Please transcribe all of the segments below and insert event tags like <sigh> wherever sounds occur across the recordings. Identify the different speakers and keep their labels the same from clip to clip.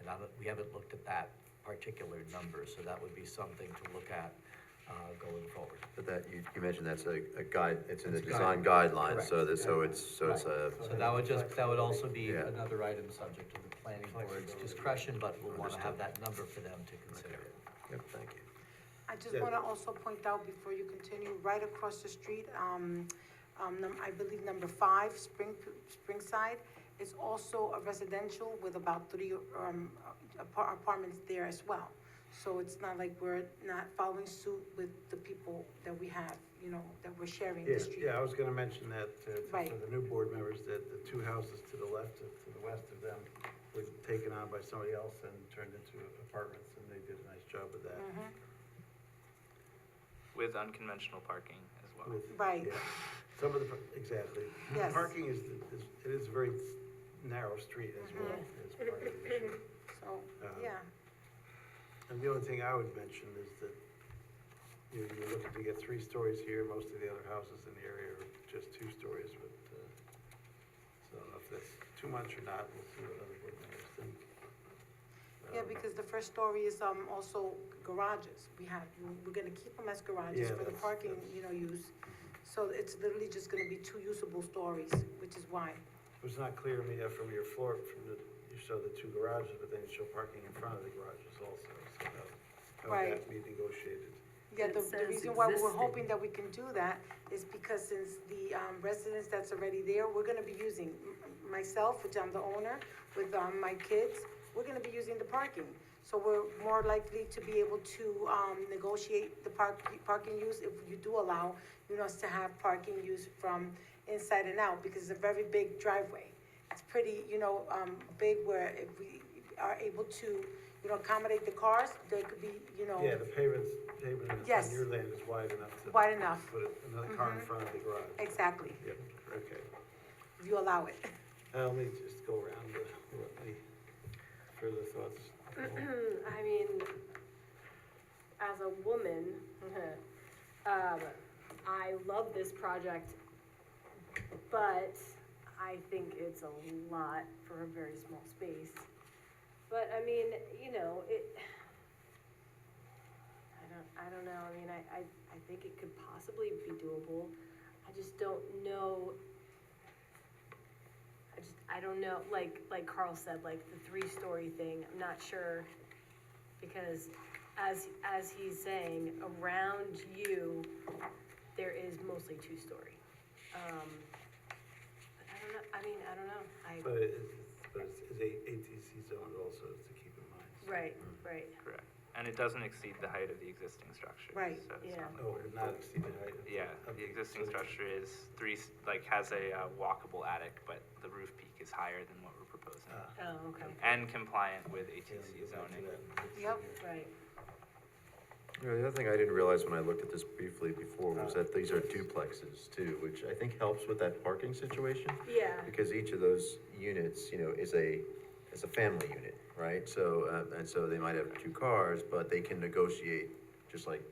Speaker 1: And I don't, we haven't looked at that particular number, so that would be something to look at, uh, going forward.
Speaker 2: But that, you, you mentioned that's a, a guide, it's in the
Speaker 1: It's
Speaker 2: design
Speaker 1: guide-
Speaker 2: guidelines, so
Speaker 1: correct.
Speaker 2: that, so it's, so it's a,
Speaker 1: Right. So that would just, that would also be
Speaker 2: Yeah.
Speaker 1: another item subject to the planning board's discretion, but we'll wanna have that number for them to consider.
Speaker 2: yep, thank you.
Speaker 3: I just want to also point out before you continue, right across the street, um, um, num- I believe number five, Spring, Springside, is also a residential with about three, um, apar- apartments there as well. So it's not like we're not following suit with the people that we have, you know, that we're sharing
Speaker 4: Yeah,
Speaker 3: the street.
Speaker 4: yeah, I was gonna mention that uh, for- for
Speaker 3: Right.
Speaker 4: the new board members, that the two houses to the left, of- to the west of them, were taken on by somebody else and turned into apartments, and they did a nice job of that.
Speaker 3: Mm-hmm.
Speaker 4: <laughs>
Speaker 5: With unconventional parking as well.
Speaker 4: With-
Speaker 3: Mm. Right.
Speaker 4: yeah. Some of the, par- exactly.
Speaker 3: Yes.
Speaker 4: Parking is, the- is- it is a very narrow street as
Speaker 3: Mm-hmm.
Speaker 4: well, as part of the issue.
Speaker 3: So,
Speaker 4: Uh,
Speaker 3: yeah,
Speaker 4: And the only thing I would mention is that you're, you're looking to get three stories here, most of the other houses in the area are just two stories, but, uh, so I don't know if that's too much or not, we'll see what other board members think.
Speaker 3: yeah,
Speaker 4: Um,
Speaker 3: because the first story is, um, also garages. We have, we're gonna keep them as
Speaker 4: Yeah,
Speaker 3: garages for the
Speaker 4: that's-
Speaker 3: parking,
Speaker 4: that's-
Speaker 3: you know, use. So it's literally just gonna be two usable stories, which is why.
Speaker 4: It was not clear to me that from your floor, from the, you show the two garages, but then you show parking in front of the garages also, so that, how would that
Speaker 3: Right.
Speaker 4: be negotiated?
Speaker 3: Yeah,
Speaker 6: It
Speaker 3: the, the
Speaker 6: says
Speaker 3: reason why we we're
Speaker 6: existing.
Speaker 3: hoping that we can do that is because since the, um, residence that's already there, we're gonna be using, m- myself, which I'm the owner, with, um, my kids, we're gonna be using the parking. So we're more likely to be able to, um, negotiate the park, parking use if you do allow, you know, us to have parking use from inside and out, because it's a very big driveway. It's pretty, you know, um, big where if we are able to, you know, accommodate the cars, there could be, you know,
Speaker 4: Yeah, the pavement's, pavement on
Speaker 3: Yes.
Speaker 4: your land is wide enough to.
Speaker 3: Wide Mm-hmm. enough.
Speaker 4: Put another car in front of the garage.
Speaker 3: exactly.
Speaker 4: Yep, okay.
Speaker 3: if you allow
Speaker 4: <laughs>
Speaker 3: it.
Speaker 4: Uh, Let me just go around the, any further thoughts?
Speaker 6: <clears throat> I mean, as a woman, <laughs> um, I love this project, but I think it's a lot for a very small space. But I mean, you know, it, <sighs> I don't, I don't know, I mean, I, I, I think it could possibly be doable. I just don't know I just, I don't know, like, like Carl said, like the three-story thing, I'm not sure, because as, as he's saying, around you, there is mostly two-story. Um, but I don't know, I mean, I don't know,
Speaker 4: But it is, but it's, it's a ATC zone also to keep in mind.
Speaker 6: I, right, right,
Speaker 5: Correct. And it doesn't exceed the height of the existing structure.
Speaker 3: Right,
Speaker 5: so it's
Speaker 6: yeah.
Speaker 5: not-
Speaker 4: Oh, it not exceed the height of.
Speaker 5: Yeah,
Speaker 4: of
Speaker 5: the existing
Speaker 4: so the-
Speaker 5: structure is three, s- like, has a uh, walkable attic, but the roof peak is higher than what we're proposing.
Speaker 4: Ah,
Speaker 6: oh, okay,
Speaker 5: And compliant with
Speaker 4: yeah, let me go
Speaker 5: ATC
Speaker 4: back to
Speaker 5: zoning.
Speaker 4: that.
Speaker 3: Yep.
Speaker 6: right,
Speaker 2: You know, the other thing I didn't realize when I looked at this briefly before was
Speaker 4: Uh.
Speaker 2: that these are duplexes too, which I think helps with that parking situation.
Speaker 6: yeah,
Speaker 2: Because each of those units, you know, is a, is a family unit, right? So, uh, and so they might have two cars, but they can negotiate, just like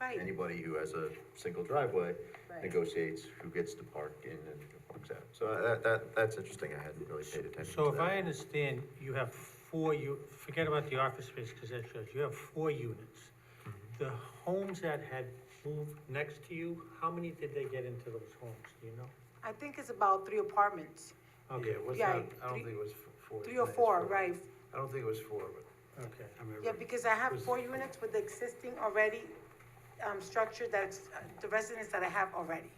Speaker 3: Right,
Speaker 2: anybody who has a single driveway
Speaker 6: Right.
Speaker 2: negotiates who gets to park in and who parks out. So uh, that, that, that's interesting, I hadn't really paid attention
Speaker 7: So
Speaker 2: to
Speaker 7: if I
Speaker 2: that.
Speaker 7: understand, you have four, you, forget about the office space, because that's yours, you have four units. The homes that had moved next to you, how many did they get into those homes, do you know?
Speaker 3: I think it's about three apartments,
Speaker 4: Yeah, it was
Speaker 3: Yeah,
Speaker 4: not, I don't
Speaker 3: three-
Speaker 4: think it was f- four.
Speaker 3: three or
Speaker 4: it's
Speaker 3: four, right?
Speaker 4: I don't think it was four, but
Speaker 7: Okay.
Speaker 4: I remember.
Speaker 3: Yeah, because I have
Speaker 4: Was-
Speaker 3: four units with the existing already, um, structure that's, uh, the residence that I have already.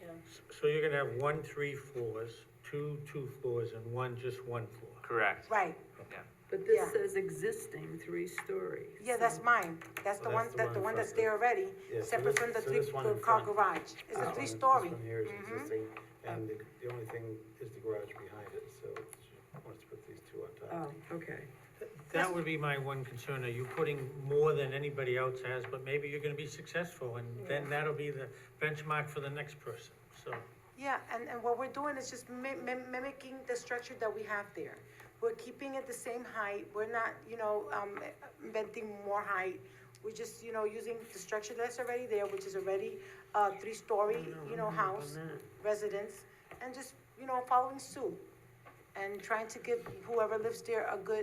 Speaker 6: yeah.
Speaker 7: S- So you're gonna have one, three floors, two, two floors, and one, just one floor?
Speaker 5: Correct.
Speaker 3: Right,
Speaker 5: Yeah.
Speaker 8: But
Speaker 3: Yeah.
Speaker 8: this says existing three-story.
Speaker 3: yeah, that's mine, that's the
Speaker 4: Well,
Speaker 3: one,
Speaker 4: that's the
Speaker 3: that, the
Speaker 4: one
Speaker 3: one
Speaker 4: in
Speaker 3: that's
Speaker 4: front.
Speaker 3: there already,
Speaker 4: Yeah, so
Speaker 3: separate
Speaker 4: this-
Speaker 3: from the
Speaker 4: so
Speaker 3: three,
Speaker 4: this one in
Speaker 3: car
Speaker 4: front.
Speaker 3: garage, it's
Speaker 4: This
Speaker 3: a
Speaker 4: one-
Speaker 3: three-story.
Speaker 4: This one here is
Speaker 3: Mhm.
Speaker 4: existing, and the, the only thing is the garage behind it, so she wants to put these two on
Speaker 8: Oh,
Speaker 4: top.
Speaker 8: okay.
Speaker 7: That would be my one concern, are you putting more than anybody else has, but maybe you're gonna be successful, and then that'll be the benchmark for the next person, so.
Speaker 3: Yeah, and, and what we're doing is just mi- mim- mimicking the structure that we have there. We're keeping it the same height, we're not, you know, um, inventing more height. We're just, you know, using the structure that's already there, which is already a three-story, you know, house, residence, and just, you know, following suit. And trying to give whoever lives there a good